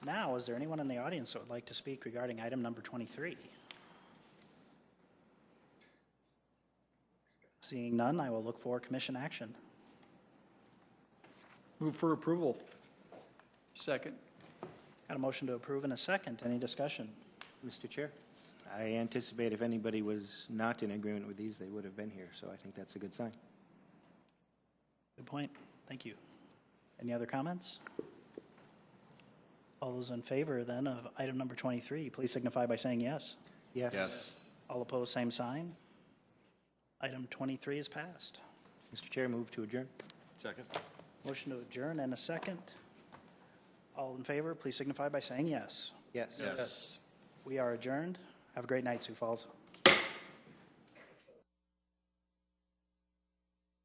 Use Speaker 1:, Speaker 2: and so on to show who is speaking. Speaker 1: now, is there anyone in the audience that would like to speak regarding item number 23? Seeing none, I will look for commission action.
Speaker 2: Move for approval. Second.
Speaker 1: Got a motion to approve and a second. Any discussion?
Speaker 3: Mr. Chair, I anticipate if anybody was not in agreement with these, they would have been here, so I think that's a good sign.
Speaker 1: Good point. Thank you. Any other comments? All those in favor then of item number 23, please signify by saying yes.
Speaker 3: Yes.
Speaker 4: Yes.
Speaker 1: All opposed, same sign. Item 23 is passed.
Speaker 3: Mr. Chair, move to adjourn.
Speaker 4: Second.
Speaker 1: Motion to adjourn and a second. All in favor, please signify by saying yes.
Speaker 3: Yes.
Speaker 4: Yes.
Speaker 1: We are adjourned. Have a great night, Sioux Falls.